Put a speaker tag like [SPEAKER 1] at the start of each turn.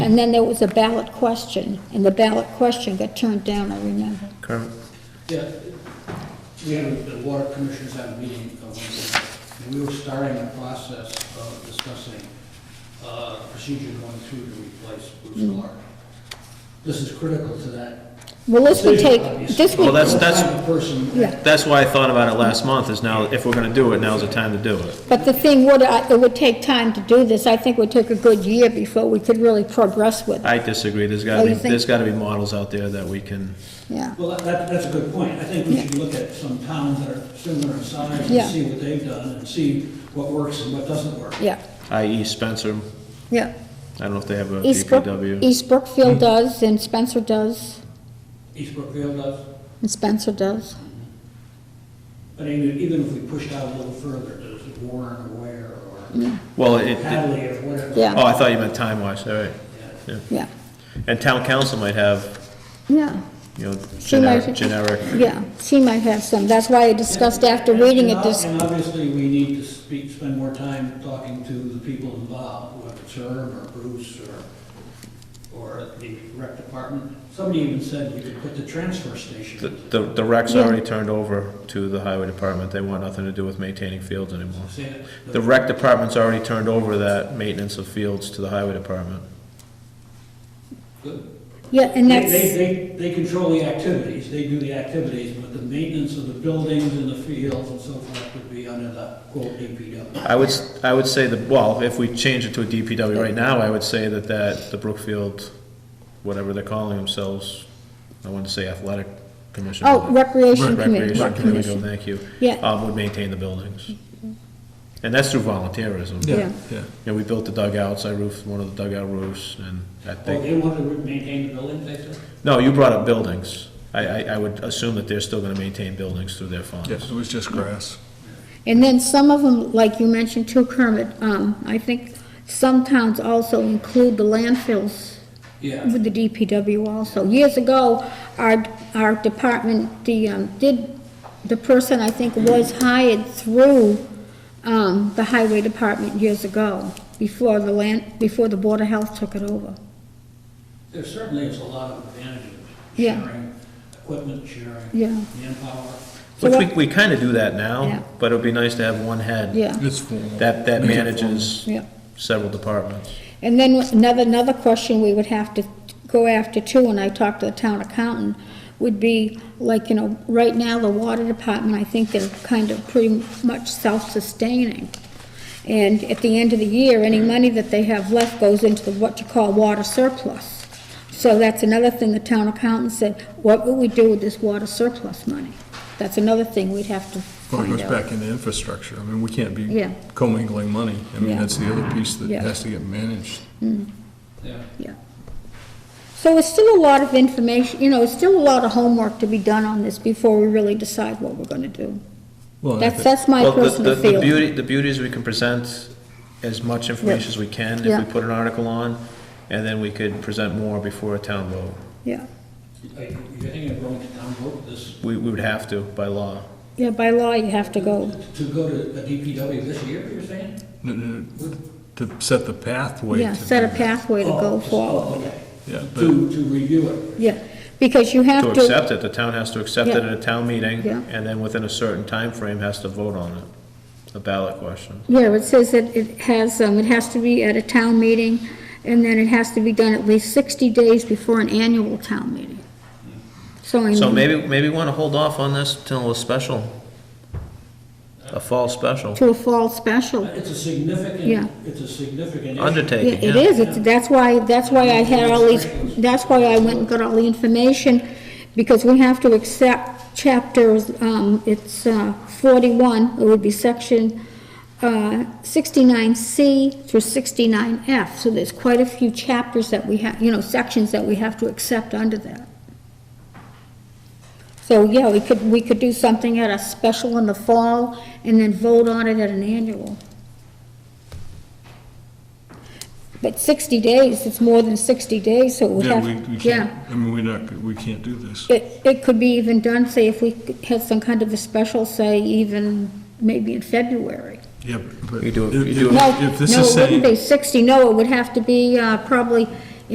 [SPEAKER 1] And then there was a ballot question, and the ballot question got turned down, I remember.
[SPEAKER 2] Kermit?
[SPEAKER 3] Yeah, we had, the water commissioners had a meeting, uh, one day, and we were starting the process of discussing uh, procedure going through to replace Bruce
[SPEAKER 1] Mm-hmm.
[SPEAKER 3] Clark. This is critical to that.
[SPEAKER 1] Well, this would
[SPEAKER 3] decision,
[SPEAKER 1] take,
[SPEAKER 3] obviously.
[SPEAKER 1] this
[SPEAKER 2] Well,
[SPEAKER 1] would,
[SPEAKER 2] that's- that's-
[SPEAKER 3] The person-
[SPEAKER 1] Yeah.
[SPEAKER 2] That's why I thought about it last month, is now, if we're gonna do it, now's the time to do it.
[SPEAKER 1] but the thing would, I- it would take time to do this. I think it would take a good year before we could really progress with it,
[SPEAKER 2] I disagree, there's
[SPEAKER 1] Oh,
[SPEAKER 2] gotta be,
[SPEAKER 1] you think-
[SPEAKER 2] there's gotta be models out there that we can,
[SPEAKER 1] yeah.
[SPEAKER 3] Well, that- that, that's a good point. I think we should look at some towns that are similar in size
[SPEAKER 1] Yeah.
[SPEAKER 3] and see what they've done and see what works and what doesn't work.
[SPEAKER 1] Yeah,
[SPEAKER 2] i.e. Spencer,
[SPEAKER 1] yeah.
[SPEAKER 2] I don't know if they have a
[SPEAKER 1] East Brook,
[SPEAKER 2] DPW.
[SPEAKER 1] East Brookfield
[SPEAKER 2] Hmm.
[SPEAKER 1] does, and Spencer does,
[SPEAKER 3] East Brookfield does,
[SPEAKER 1] and Spencer does.
[SPEAKER 3] but even, even if we pushed out a little further, there's Warren or Ware or
[SPEAKER 2] Well, it, it-
[SPEAKER 3] Hadley or whatever.
[SPEAKER 1] Yeah.
[SPEAKER 2] oh, I thought you meant time-wise, all right.
[SPEAKER 3] Yeah.
[SPEAKER 1] Yeah,
[SPEAKER 2] And town council might have,
[SPEAKER 1] yeah,
[SPEAKER 2] you know,
[SPEAKER 1] She might-
[SPEAKER 2] generic, generic,
[SPEAKER 1] yeah. She might have some. That's why I discussed after
[SPEAKER 3] And-
[SPEAKER 1] reading
[SPEAKER 3] and
[SPEAKER 1] it this,
[SPEAKER 3] ob- And obviously, we need to speak, spend more time talking to the people involved, whether it's Herb or Bruce or, or the rec department. Somebody even said you could put the transfer
[SPEAKER 2] the,
[SPEAKER 3] station.
[SPEAKER 2] the the rec's
[SPEAKER 1] Yeah.
[SPEAKER 2] already turned over to the highway department, they want nothing to do with maintaining fields anymore.
[SPEAKER 3] Say that-
[SPEAKER 2] The rec department's already turned over that maintenance of fields to the highway department.
[SPEAKER 3] Good.
[SPEAKER 1] yeah, and
[SPEAKER 3] They,
[SPEAKER 1] that's.
[SPEAKER 3] they, they- they control the activities, they do the activities, but the maintenance of the buildings and the fields and so forth would be under the quote DPW.
[SPEAKER 2] I would, s- I would say that, well, if we change it to a DPW right now, I would say that that, the Brookfield, whatever they're calling themselves, I wanted to say athletic commission.
[SPEAKER 1] Oh, Recreation Committee.
[SPEAKER 2] Recreation, there we go, thank you.
[SPEAKER 1] Yeah.
[SPEAKER 2] Um, would maintain the buildings. And that's through volunteerism.
[SPEAKER 1] Yeah.
[SPEAKER 4] yeah.
[SPEAKER 2] You know, we built the dugouts, I roofed one of the dugout roofs, and I
[SPEAKER 3] Well,
[SPEAKER 2] think,
[SPEAKER 3] Oh, they want to maintain the buildings, they said?
[SPEAKER 2] no, you brought up buildings. I, I, I would assume that they're still gonna maintain buildings through their funds.
[SPEAKER 4] Yes, it was just grass.
[SPEAKER 1] And then some of them, like you mentioned too, Kermit, um, I think some towns also include the landfills
[SPEAKER 3] Yeah,
[SPEAKER 1] with the DPW also. Years ago, our, our department, the, um, did, the person I think was hired through, um, the highway department years ago, before the land, before the Board of Health took it over.
[SPEAKER 3] there certainly is a lot of advantages.
[SPEAKER 1] Yeah.
[SPEAKER 3] Sharing, equipment sharing.
[SPEAKER 1] Yeah,
[SPEAKER 3] manpower.
[SPEAKER 1] So
[SPEAKER 2] Which we,
[SPEAKER 1] what-
[SPEAKER 2] we kinda do that
[SPEAKER 1] Yeah.
[SPEAKER 2] now, but it would be nice to have one head.
[SPEAKER 1] yeah,
[SPEAKER 4] It's formal.
[SPEAKER 2] That, that
[SPEAKER 4] Make it
[SPEAKER 2] manages
[SPEAKER 1] yeah.
[SPEAKER 2] several departments.
[SPEAKER 1] And then another, another question we would have to go after too, when I talked to the town accountant, would be like, you know, right now, the water department, I think they're kind of pretty much self-sustaining. And at the end of the year, any money that they have left goes into the, what you call water surplus. So that's another thing the town accountant said, what would we do with this water surplus money? That's another thing we'd have to
[SPEAKER 4] Well, it
[SPEAKER 1] find
[SPEAKER 4] goes
[SPEAKER 1] out.
[SPEAKER 4] back into infrastructure. I mean, we can't be
[SPEAKER 1] Yeah.
[SPEAKER 4] commingling money. I mean,
[SPEAKER 1] Yeah.
[SPEAKER 4] that's the other piece that
[SPEAKER 1] Yeah.
[SPEAKER 4] has to get managed.
[SPEAKER 3] Yeah.
[SPEAKER 1] Yeah. So it's still a lot of information, you know, it's still a lot of homework to be done on this before we really decide what we're gonna do.
[SPEAKER 4] Well, and I
[SPEAKER 1] That's,
[SPEAKER 4] think-
[SPEAKER 1] that's my
[SPEAKER 2] Well, the- the-
[SPEAKER 1] personal
[SPEAKER 2] The
[SPEAKER 1] feeling.
[SPEAKER 2] beauty, the beauty is we can present as much information as we can
[SPEAKER 1] Yeah.
[SPEAKER 2] if we put an article on, and then we could present more before a town vote.
[SPEAKER 1] Yeah,
[SPEAKER 3] Are you you're thinking of going to town vote this,
[SPEAKER 2] We, we would have to by law.
[SPEAKER 1] yeah, by law, you have to go,
[SPEAKER 3] to go to a DPW this year, you're saying?
[SPEAKER 4] no, no, no, To set the pathway.
[SPEAKER 1] yeah,
[SPEAKER 4] to
[SPEAKER 1] set a
[SPEAKER 4] do that.
[SPEAKER 1] pathway to
[SPEAKER 3] Oh,
[SPEAKER 1] go
[SPEAKER 3] just-
[SPEAKER 1] forward,
[SPEAKER 3] oh, okay.
[SPEAKER 4] Yeah, but,
[SPEAKER 3] To, to review it.
[SPEAKER 1] yeah, because you
[SPEAKER 2] To
[SPEAKER 1] have to,
[SPEAKER 2] accept it, the town has to accept it at a town meeting,
[SPEAKER 1] Yeah.
[SPEAKER 2] and then within a certain time frame has to vote on it, a ballot question.
[SPEAKER 1] yeah, it says that it has, um, it has to be at a town meeting, and then it has to be done at least sixty days before an annual town meeting. So, I
[SPEAKER 2] So
[SPEAKER 1] mean,
[SPEAKER 2] maybe, maybe we wanna hold off on this till a special, a fall special
[SPEAKER 1] to a fall special.
[SPEAKER 3] It's a
[SPEAKER 1] Oh. Yeah.
[SPEAKER 3] significant, it's a significant issue.
[SPEAKER 1] Yeah,
[SPEAKER 2] undertaking,
[SPEAKER 1] it
[SPEAKER 2] yeah.
[SPEAKER 1] is, it's, that's why, that's why I had all these, that's why I went and got all the information, because we have to accept chapters, um, it's, uh, forty-one, it would be section, uh, sixty-nine C through sixty-nine F, so there's quite a few chapters that we have, you know, sections that we have to accept under that. So, yeah, we could, we could do something at a special in the fall, and then vote on it at an annual. But 60 days, it's more than 60 days, so we
[SPEAKER 4] yeah,
[SPEAKER 1] have,
[SPEAKER 4] we, we can't,
[SPEAKER 1] yeah.
[SPEAKER 4] I mean, we're not, we can't do this.
[SPEAKER 1] It, it could be even done, say, if we had some kind of a special, say, even maybe in February.
[SPEAKER 4] Yeah, but.
[SPEAKER 2] You do it-
[SPEAKER 4] if-
[SPEAKER 2] you do
[SPEAKER 4] if-
[SPEAKER 1] No,
[SPEAKER 4] If this is
[SPEAKER 1] No, it wouldn't be
[SPEAKER 4] saying,
[SPEAKER 1] 60, no, it would have to be uh, probably